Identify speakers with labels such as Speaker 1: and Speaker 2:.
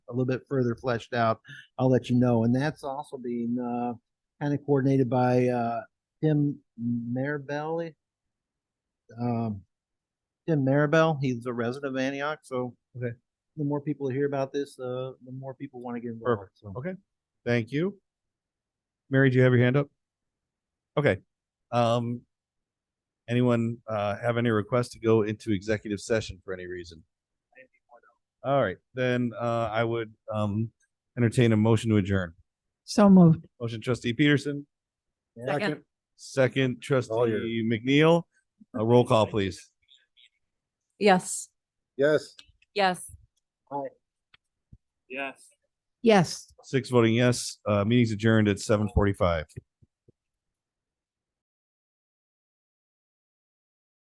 Speaker 1: a little bit further fleshed out, I'll let you know. And that's also being, uh, kind of coordinated by, uh, Tim Marabelli. Um, Tim Marabel, he's a resident of Antioch, so.
Speaker 2: Okay.
Speaker 1: The more people hear about this, uh, the more people want to get involved,
Speaker 2: Perfect.
Speaker 1: so.
Speaker 2: Okay. Thank you. Mary, do you have your hand up? Okay. Um, anyone, uh, have any requests to go into executive session for any reason? All right, then, uh, I would, um, entertain a motion to adjourn.
Speaker 3: So moved.
Speaker 2: Motion trustee Peterson,
Speaker 1: Yeah.
Speaker 2: second trustee McNeil, a roll call, please.
Speaker 3: Yes.
Speaker 4: Yes.
Speaker 3: Yes.
Speaker 4: Yes.
Speaker 3: Yes.
Speaker 2: Six voting yes, uh, meeting's adjourned at seven forty-five.